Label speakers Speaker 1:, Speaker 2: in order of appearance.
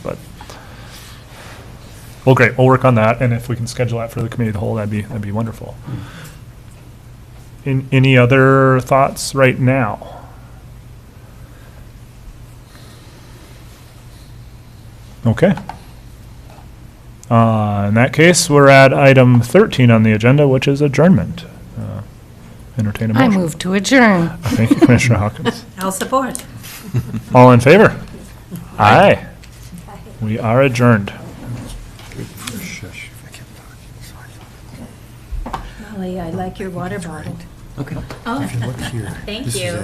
Speaker 1: But, well, great, we'll work on that, and if we can schedule that for the committee of the whole, that'd be, that'd be wonderful. In, any other thoughts right now? Okay. Uh, in that case, we're at item thirteen on the agenda, which is adjournment. Uh, Entertain a
Speaker 2: I
Speaker 1: motion.
Speaker 2: move to adjourn.
Speaker 1: Thank you, Commissioner Hawkins.
Speaker 3: I'll support.
Speaker 1: All in favor? Aye. We are adjourned.
Speaker 3: Molly, I like your water bottle.
Speaker 4: Okay.
Speaker 3: Oh,
Speaker 4: Look here.
Speaker 3: thank
Speaker 4: This is
Speaker 3: Oh, you.